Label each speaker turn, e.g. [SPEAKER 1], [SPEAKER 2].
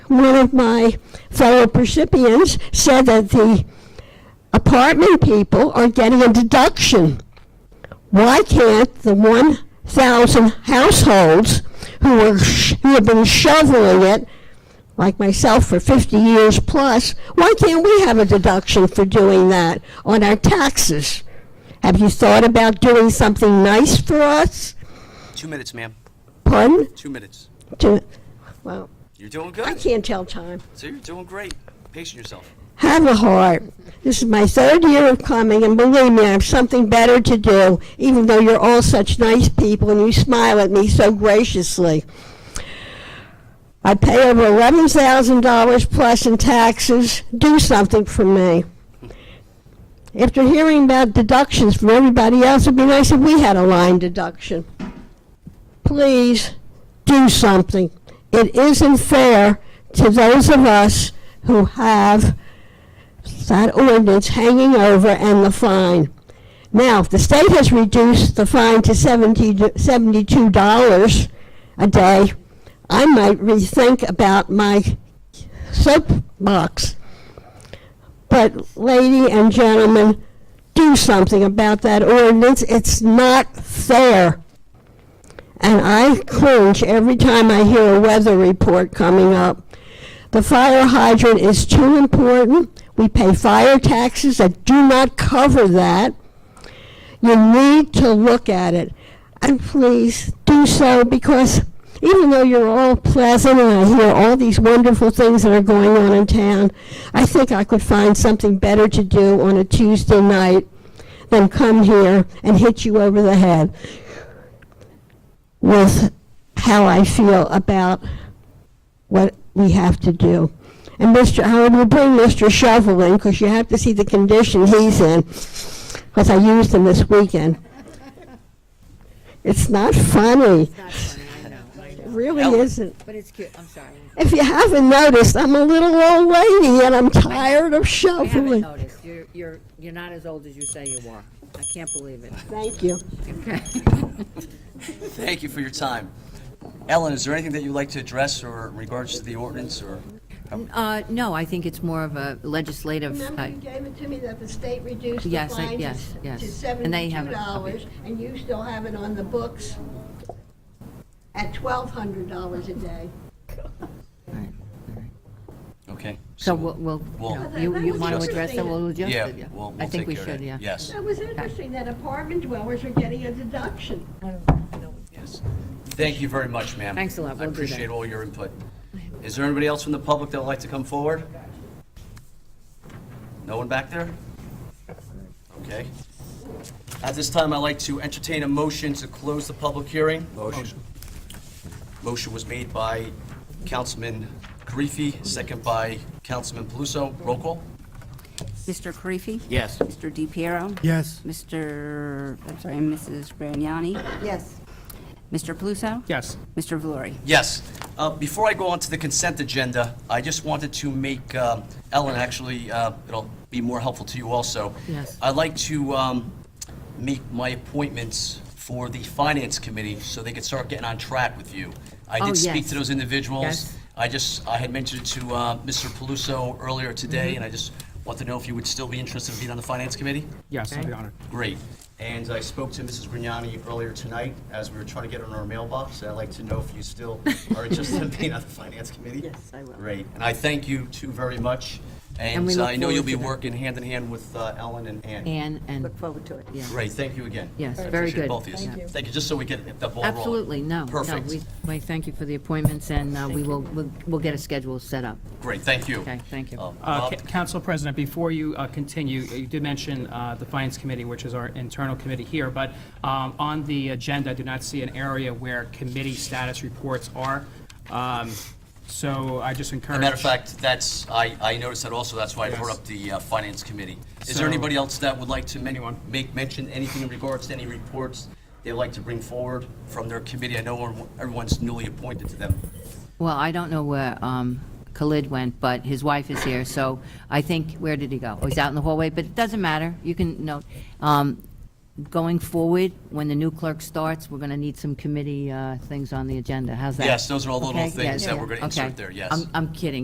[SPEAKER 1] one of my fellow percipients said that the apartment people are getting a deduction. Why can't the 1,000 households who, are, sh- who have been shoveling it, like myself for 50 years plus, why can't we have a deduction for doing that on our taxes? Have you thought about doing something nice for us?
[SPEAKER 2] Two minutes, ma'am.
[SPEAKER 1] Pardon?
[SPEAKER 2] Two minutes.
[SPEAKER 1] To, well,
[SPEAKER 2] You're doing
[SPEAKER 1] I
[SPEAKER 2] good.
[SPEAKER 1] can't tell time.
[SPEAKER 2] So you're doing great. Pace yourself.
[SPEAKER 1] Have a heart. This is my third year of coming, and believe me, I have something better to do, even though you're all such nice people and you smile at me so graciously. I pay over $11,000 plus in taxes. Do something for me. After hearing about deductions from everybody else, it'd be nice if we had a line deduction. Please do something. It isn't fair to those of us who have that ordinance hanging over and the fine. Now, if the state has reduced the fine to 70 to $72 a day, I might rethink about my soapbox. But, lady and gentlemen, do something about that ordinance. It's not fair. And I cringe every time I hear a weather report coming up. The fire hydrant is too important. We pay fire taxes that do not cover that. You need to look at it. And please do so because even though you're all pleasant and I hear all these wonderful things that are going on in town, I think I could find something better to do on a Tuesday night than come here and hit you over the head with how I feel about what we have to do. And Mr., I will bring Mr. Shovel in, because you have to see the condition he's in, because I used him this weekend. It's not funny,
[SPEAKER 3] Not funny, I know, I know.
[SPEAKER 1] really
[SPEAKER 2] Ellen.
[SPEAKER 1] isn't.
[SPEAKER 3] But it's cute, I'm sorry.
[SPEAKER 1] If you haven't noticed, I'm a little old lady, and I'm tired of
[SPEAKER 3] I haven't
[SPEAKER 1] shoveling.
[SPEAKER 3] noticed. You're, you're, you're not as old as you say you are. I can't believe it.
[SPEAKER 1] Thank you.
[SPEAKER 3] Okay.
[SPEAKER 2] Thank you for your time. Ellen, is there anything that you'd like to address or in regards to the ordinance or?
[SPEAKER 3] Uh, no, I think it's more of a legislative,
[SPEAKER 1] Oh. Remember
[SPEAKER 3] uh,
[SPEAKER 1] you gave it to me that the state reduced the
[SPEAKER 3] Yes, I-
[SPEAKER 1] fine to
[SPEAKER 3] yes,
[SPEAKER 1] s-
[SPEAKER 3] yes.
[SPEAKER 1] to
[SPEAKER 3] And they have
[SPEAKER 1] seventy-two
[SPEAKER 3] it, okay.
[SPEAKER 1] dollars, and you still have it on the books at twelve hundred dollars a day.
[SPEAKER 3] all right, all right.
[SPEAKER 2] Okay.
[SPEAKER 3] so we'll, we'll,
[SPEAKER 2] We'll-
[SPEAKER 3] no, you,
[SPEAKER 1] That
[SPEAKER 3] you
[SPEAKER 1] was
[SPEAKER 3] want to
[SPEAKER 2] just-
[SPEAKER 3] address it, we'll adjust
[SPEAKER 2] Yeah,
[SPEAKER 3] it, yeah.
[SPEAKER 2] we'll, we'll
[SPEAKER 3] I think
[SPEAKER 2] take
[SPEAKER 3] we
[SPEAKER 2] care of
[SPEAKER 3] should,
[SPEAKER 2] that.
[SPEAKER 3] yeah.
[SPEAKER 2] Yes,
[SPEAKER 1] That was interesting that apartment dwellers are getting a deduction.
[SPEAKER 2] yes. Thank you very much, ma'am.
[SPEAKER 3] Thanks a lot.
[SPEAKER 2] I
[SPEAKER 3] We'll do that.
[SPEAKER 2] appreciate all your input. Is there anybody else from the public that would like to come forward? No one back there? Okay. At this time, I'd like to entertain a motion to close the public hearing. Motion. Motion was made by Councilman Karifi, second by Councilman Paluso. Roll call?
[SPEAKER 4] Mr. Karifi?
[SPEAKER 2] Yes.
[SPEAKER 4] Mr. DePiero?
[SPEAKER 5] Yes.
[SPEAKER 4] Mr., I'm sorry, Mrs. Grignani?
[SPEAKER 1] Yes.
[SPEAKER 4] Mr. Paluso?
[SPEAKER 5] Yes.
[SPEAKER 4] Mr. Valori?
[SPEAKER 2] Yes. Uh, Before I go on to the consent agenda, I just wanted to make um, Ellen, actually, uh, it'll be more helpful to you also.
[SPEAKER 3] Yes.
[SPEAKER 2] I'd like to um, make my appointments for the Finance Committee so they could start getting on track with you. I
[SPEAKER 3] Oh,
[SPEAKER 2] did speak
[SPEAKER 3] yes.
[SPEAKER 2] to those individuals.
[SPEAKER 3] Yes.
[SPEAKER 2] I just, I had mentioned it to uh, Mr. Paluso earlier
[SPEAKER 3] Mm-hmm.
[SPEAKER 2] today, and I just want to know if you would still be interested in being on the Finance Committee?
[SPEAKER 5] Yes, I'd
[SPEAKER 3] Okay.
[SPEAKER 5] be honored.
[SPEAKER 2] Great. And I spoke to Mrs. Grignani earlier tonight as we were trying to get her in our mailbox. I'd like to know if you still are interested in being on the Finance Committee? Yes, I will. Great. And I thank you two very much. And
[SPEAKER 3] we
[SPEAKER 2] uh,
[SPEAKER 3] look
[SPEAKER 2] I know you'll
[SPEAKER 3] forward
[SPEAKER 2] be
[SPEAKER 3] to that.
[SPEAKER 2] working hand in hand with uh, Ellen and Ann.
[SPEAKER 3] And, and,
[SPEAKER 4] forward to it.
[SPEAKER 3] yeah.
[SPEAKER 2] Great, thank you again.
[SPEAKER 3] Yes,
[SPEAKER 2] I
[SPEAKER 3] very
[SPEAKER 2] appreciate
[SPEAKER 3] good.
[SPEAKER 2] both of
[SPEAKER 3] Thank
[SPEAKER 2] you.
[SPEAKER 3] you.
[SPEAKER 2] Thank you, just so we get the ball rolling.
[SPEAKER 3] Absolutely, no, no,
[SPEAKER 2] Perfect.
[SPEAKER 3] we, we thank you for the appointments, and uh, we will, we'll- we'll get a schedule set up.
[SPEAKER 2] Great, thank you.
[SPEAKER 3] Okay, thank you.
[SPEAKER 2] Um,
[SPEAKER 5] Uh,
[SPEAKER 2] Bob?
[SPEAKER 5] Ca- Council President, before you uh, continue, you did mention uh, the Finance Committee, which is our internal committee here, but um, on the agenda, I do not see an area where committee status reports are. Um, So I just
[SPEAKER 2] As
[SPEAKER 5] encourage.
[SPEAKER 2] a matter of fact, that's, I, I noticed that also, that's why I brought
[SPEAKER 5] Yes.
[SPEAKER 2] up the uh, Finance Committee. Is there
[SPEAKER 5] So-
[SPEAKER 2] anybody else that would like to men-
[SPEAKER 5] Anyone?
[SPEAKER 2] make mention, anything in regards to any reports they'd like to bring forward from their committee? I know everyone- everyone's newly appointed to them.
[SPEAKER 3] Well, I don't know where um, Khalid went, but his wife is here, so I think, where did he go? Oh, he's out in the hallway, but it doesn't matter, you can note. Um, Going forward, when the new clerk starts, we're going to need some committee uh, things on the agenda, how's that?
[SPEAKER 2] Yes, those are all the little
[SPEAKER 3] Okay?
[SPEAKER 2] things
[SPEAKER 3] Yes.
[SPEAKER 2] that we're gonna
[SPEAKER 3] Okay.
[SPEAKER 2] insert there, yes.
[SPEAKER 3] I'm- I'm kidding,